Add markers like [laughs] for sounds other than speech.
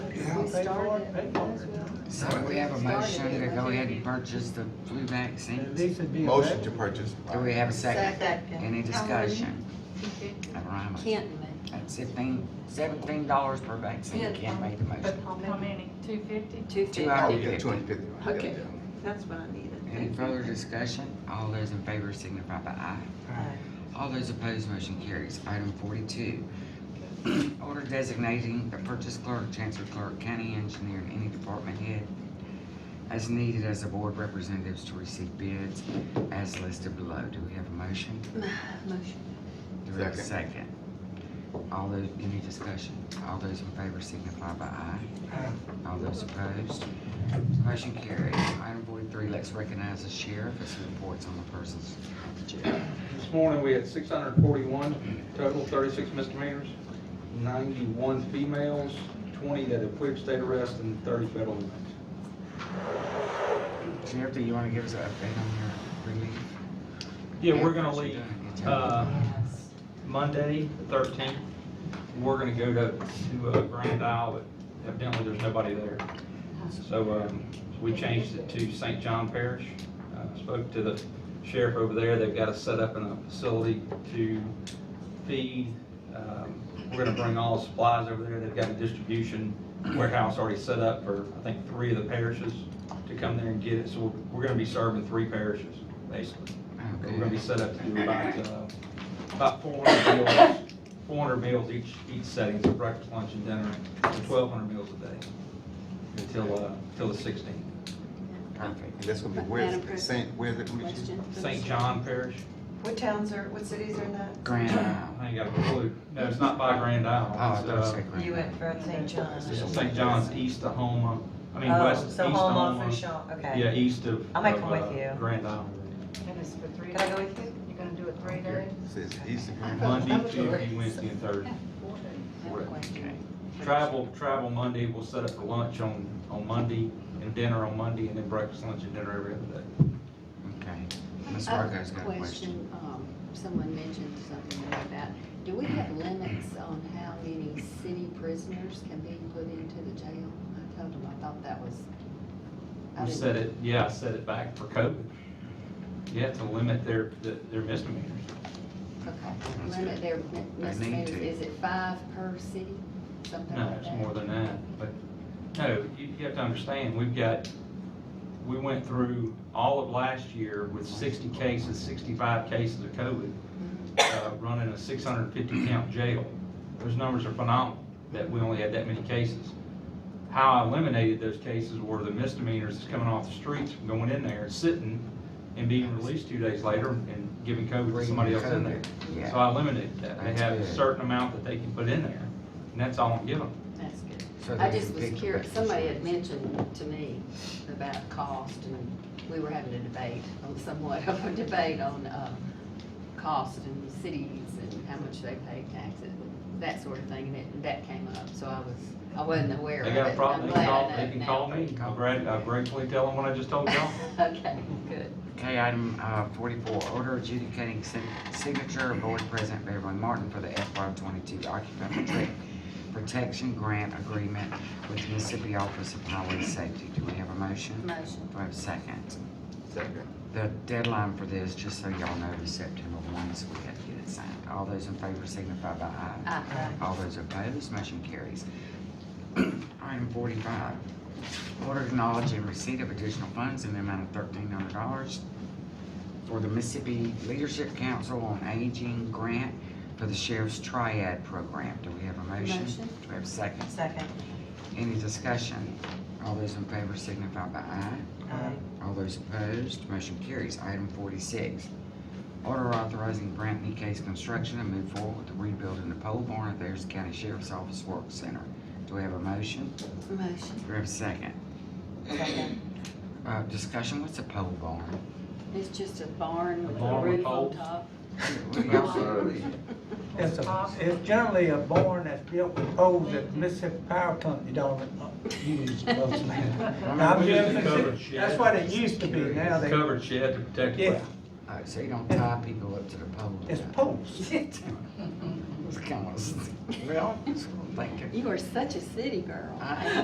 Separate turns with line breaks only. paid for it, paid for it.
So we have a motion to go ahead and purchase the flu
It
vaccines.
needs to be.
Motion to purchase.
Do we have a second?
Second.
Any discussion? All right,
Can't make.
that's fifteen, seventeen dollars per vaccine, Ken made the motion.
How many? Two fifty?
Two
Two
fifty.
Oh,
hundred
yeah,
and
two
fifty.
hundred fifty.
Okay. That's what I needed.
Any further discussion? All those in favor signify by aye. All those opposed, motion carries. Item forty-two, [clears throat] order designating the purchase clerk, chancellor clerk, county engineer, and any department head as needed as the board representatives to receive bids as listed below. Do we have a motion?
Motion.
Do we have a second? All those, any discussion? All those in favor signify by aye.
Aye.
All those opposed, motion carries. Item forty-three, let's recognize the sheriff as he reports on the persons of the jail.
This morning, we had six hundred and forty-one total, thirty-six misdemeanors, ninety-one females, twenty that have quit state arrest, and thirty federal inmates.
Sheriff, do you want to give us an update on your relief?
Yeah, we're gonna
What you
leave,
doing? Get your-
uh, Monday, the thirteenth. We're gonna go to, to uh, Grand Isle, but evidently there's nobody there. So, um, we changed it to St. John Parish. Uh, Spoke to the sheriff over there. They've got us set up in a facility to feed. Um, We're gonna bring all supplies over there. They've got a distribution warehouse already set up for, I think, three of the parishes to come there and get it. So we're- we're gonna be serving three parishes, basically.
Oh,
We're gonna be
good.
set up to do about, uh, about four hundred meals, four hundred meals each, each setting, so breakfast, lunch, and dinner, twelve hundred meals a day until, uh, until the sixteenth.
Perfect.
And that's gonna be
Madam
where,
President.
Saint, where's it gonna be?
Question.
St. John Parish,
What towns are, what cities are in that?
Grand Isle.
I ain't got a clue. No, it's not by Grand
Oh, I
Isle.
thought it
It's,
said Grand
You
Isle.
went for St. John's.
uh, St. John's east of Homa, I mean,
Oh,
west, east
So
of
home
Homa.
off Fishel,
Yeah,
okay.
east of.
I'll make
of,
them with
uh,
you.
Grand Isle.
And it's for three
Can I
days?
go with you?
You're gonna do it three days?
Says East of
Monday, Tuesday, Wednesday, and Thursday.
Four days.
Okay.
Uh,
Travel, travel Monday, we'll set up for lunch on, on Monday, and dinner on Monday, and then breakfast, lunch, and dinner every other day.
Okay. Ms. Fargo's got a question.
um, someone mentioned something about that. Do we have limits on how many city prisoners can be put into the jail? I told them, I thought that was. I
We
didn't-
set it, yeah, I set it back for COVID. Yeah, to limit their, their misdemeanors.
Okay, limit their mi-
They need
misdemeanors,
to.
is it five per city, something
No,
like
it's
that?
more than that, but, no, you, you have to understand, we've got, we went through all of last year with sixty cases, sixty-five cases of COVID, uh, running a six hundred and fifty count jail. Those numbers are phenomenal, that we only had that many cases. How I eliminated those cases were the misdemeanors that's coming off the streets, from going in there, sitting, and being released two days later and giving COVID to somebody else in there. So
Yeah.
I eliminated that. They have a certain amount that they can put in there, and that's all I'm giving them.
That's good.
So
I
they
just
can
was
pick the
curious,
best
somebody
one.
had mentioned to me about cost, and we were having a debate, um, somewhat of a debate on, uh, cost and cities and how much they pay taxes, that sort of thing, and it, that came up, so I was, I wasn't aware of it.
They got a
and
problem,
I'm
they
glad
can
I
call,
know
they can
now. [laughs]
call me. I'll grad- I'll gratefully tell them what I just told y'all.
Okay, good.
Okay, item uh, forty-four, order adjudicating sin- signature of Board President Beverly Martin for the FY twenty-two occupant protect- protection grant agreement with the Mississippi Office of Highway Safety. Do we have a motion?
Motion.
Do we have a second?
Second.
The deadline for this, just so y'all know, is September one, so we have to get it signed. All those in favor signify by aye.
Aye.
All those opposed, motion carries. [clears throat] Item forty-five, order acknowledging receipt of additional funds in the amount of thirteen hundred dollars for the Mississippi Leadership Council on Aging Grant for the Sheriff's Triad Program. Do we have a motion?
Motion.
Do we have a second?
Second.
Any discussion? All those in favor signify by aye.
Aye.
All those opposed, motion carries. Item forty-six, order authorizing Brantley Case Construction to move forward with the rebuilding the pole barn at the Harrison County Sheriff's Office Work Center. Do we have a motion?
Motion.
Do we have a second?
Second.
Uh, discussion, what's a pole barn?
It's just a barn
A
with a
barn with
roof on
poles.
top.
It's a, it's generally a barn that's built with poles that Mississippi Power Company don't uh, use mostly. Now, I'm
We used to
just-
cover shit.
That's what it used to be, now they,
Covered shed to protect. the
yeah,
Alright, Uh, so you don't tie people up to the pole.
it's poles.
[laughs] It's kind of- Well, thank you.
You are such a city girl.
I-